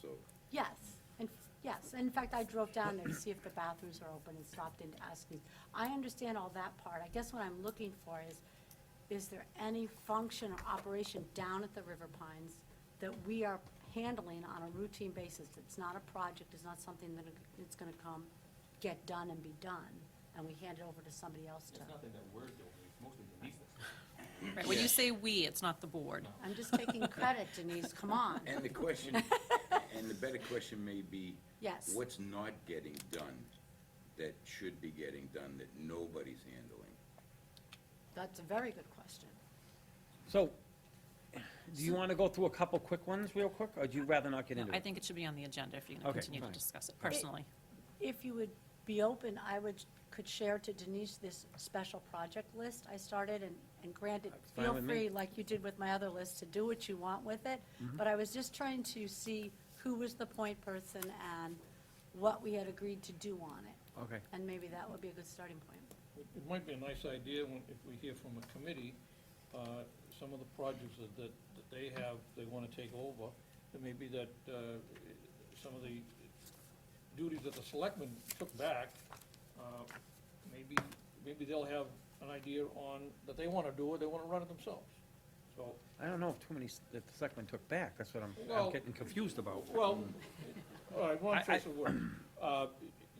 so. Yes, and, yes, in fact, I drove down there to see if the bathrooms are open and stopped in to ask me. I understand all that part, I guess what I'm looking for is, is there any function or operation down at the River Pines that we are handling on a routine basis, it's not a project, it's not something that it's gonna come, get done and be done, and we hand it over to somebody else to. It's nothing that we're doing, it's mostly Denise's. Right, when you say "we," it's not the board. I'm just taking credit, Denise, come on. And the question, and the better question may be. Yes. What's not getting done that should be getting done that nobody's handling? That's a very good question. So, do you want to go through a couple quick ones real quick, or do you rather not get No, into it? I think it should be on the agenda if you're going to Okay, continue to fine. discuss it personally. If you would be open, I would, could share to Denise this special project list I started, and, and granted, fine feel with me. free, like you did with my other list, to do what you want with it, Mm-hmm. but I was just trying to see who was the point person and what we had agreed to do on it, Okay. and maybe that would be a good starting point. It it might be a nice idea when, if we hear from a committee, uh, some of the projects that, that that they have, they want to take over, and maybe that uh, some of the duties that the selectmen took back, uh, maybe, maybe they'll have an idea on, that they want to do it, they want to run it themselves. So, I don't know if too many, s- that the selectmen took back, that's what I'm, Well- I'm getting confused about. Well, all right, I- one I- choice of word. Uh,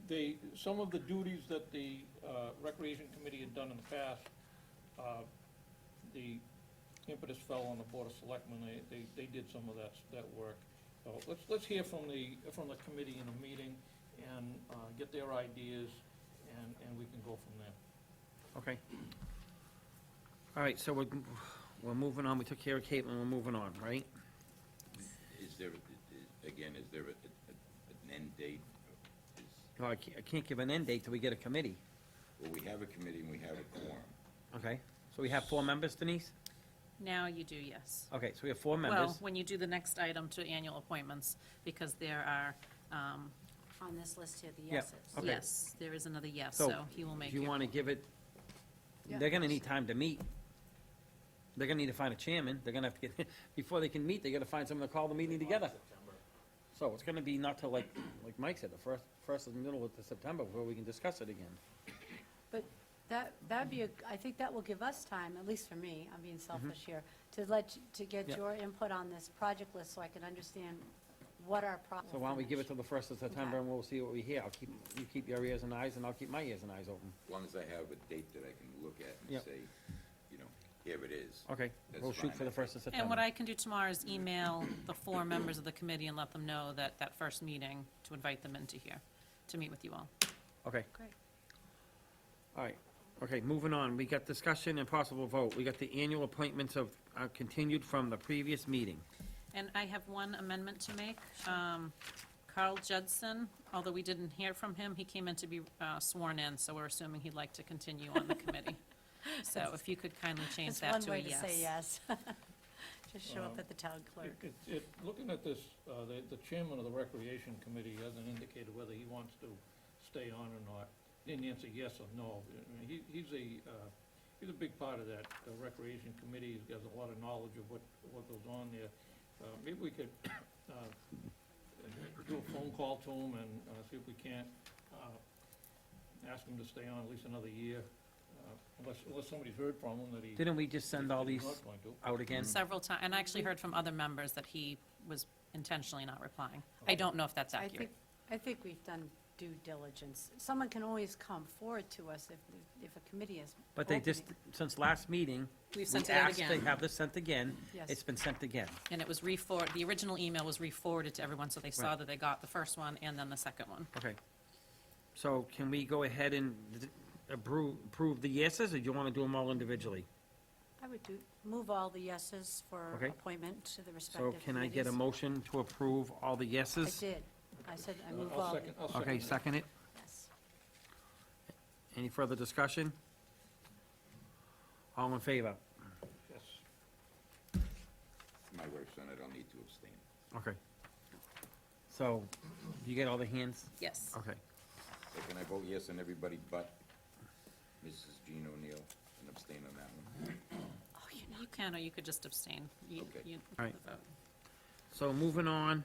They, some of the duties that the uh, Recreation Committee had done in the past, uh, the impetus fell on the Board of Selectmen, they, they, they did some of that, that work. So let's, let's hear from the, from the committee in a meeting and uh, get their ideas, and, and we can go from there. Okay. All right, so we're, we're moving on, we took care of Caitlin, we're moving on, right? Is there, i- i- again, is there a- a- an end date? Is- Well, I can't, I can't give an end date till we get a committee, Well, we have a committee and we have a quorum. okay? So we have four members, Denise? Now you do, yes. Okay, so we have four Well, members. when you do the next item to annual appointments, because there are, um, On this list here, the Yeah, Oh. yeses. Okay. yes, there is another yes, so he will make If you you. want to give it, Yeah. they're gonna need time to meet. They're gonna need to find a chairman, they're gonna have to get, before they can meet, they gotta find someone to call the meeting together. So it's gonna be not till like, like Mike said, the first, first of the middle of the September, where we can discuss it again. But that, that'd be, a I think that will give us time, at least for me, I'm being selfish here, to let, you- to get Mm-hmm. Yeah. your input on this project list so I can understand what our problem. So why don't we give it till the first of September and we'll see what we hear, I'll keep, you keep your ears and eyes, and I'll keep my ears and eyes open. As long as I have a date that I can look at and Yep. say, you know, here it is. Okay, That's we'll shoot fine, for I the think. first of September. And what I can do tomorrow is email the four members of the committee and let them know that, that first meeting, to invite them into here, to meet with you all. Okay, Great. all right, okay, moving on, we got discussion and possible vote, we got the annual appointments of, uh, continued from the previous meeting. And I have one amendment to make. Um, Carl Judson, although we didn't hear from him, he came in to be uh, sworn in, so we're assuming he'd like to continue on the committee. So if you could kindly change It's that one to a way to say yes. yes. Just show up at the town clerk. It- it- it- Looking at this, uh, the the chairman of the Recreation Committee hasn't indicated whether he wants to stay on or not. Didn't answer yes or no. I mean, he- He's a, uh, he's a big part of that uh, Recreation Committee. He's got a lot of knowledge of what, what goes on there. Uh, Maybe we could uh, do a phone call to him and uh, see if we can't uh, ask him to stay on at least another year, uh, unless, unless somebody's heard from him that he. Didn't we just send all he's these not going to. out again? Several times, and I actually heard from other members that he was intentionally not replying. I don't know if that's I think, accurate. I think we've done due diligence. Someone can always come forward to us if, if a committee is. But they just, opening. since last meeting, we We've sent it out asked to again. have this sent again. Yes. It's been sent again. And it was re-forwarded, the original email was re-forwarded to everyone, so they saw Right. that they got the first one and then the second one. Okay. So can we go ahead and approve, approve the yeses, or do you want to do them all individually? I would do, move all the yeses for Okay. appointment to the respective So committees. can I get a motion to approve all the I yeses? did. I said I I'll- move I'll all, second- I'll Okay, that. second it. yes. Any further discussion? All in favor? Yes. It's My wife's son, I don't need to abstain. Okay. So, you get all the hands? Yes. Okay. So Can I vote yes on everybody but Mrs. Jean O'Neill and abstain on that one? Oh, you know. You can, or you could just abstain. You- Okay. you- All right. the vote. So moving on.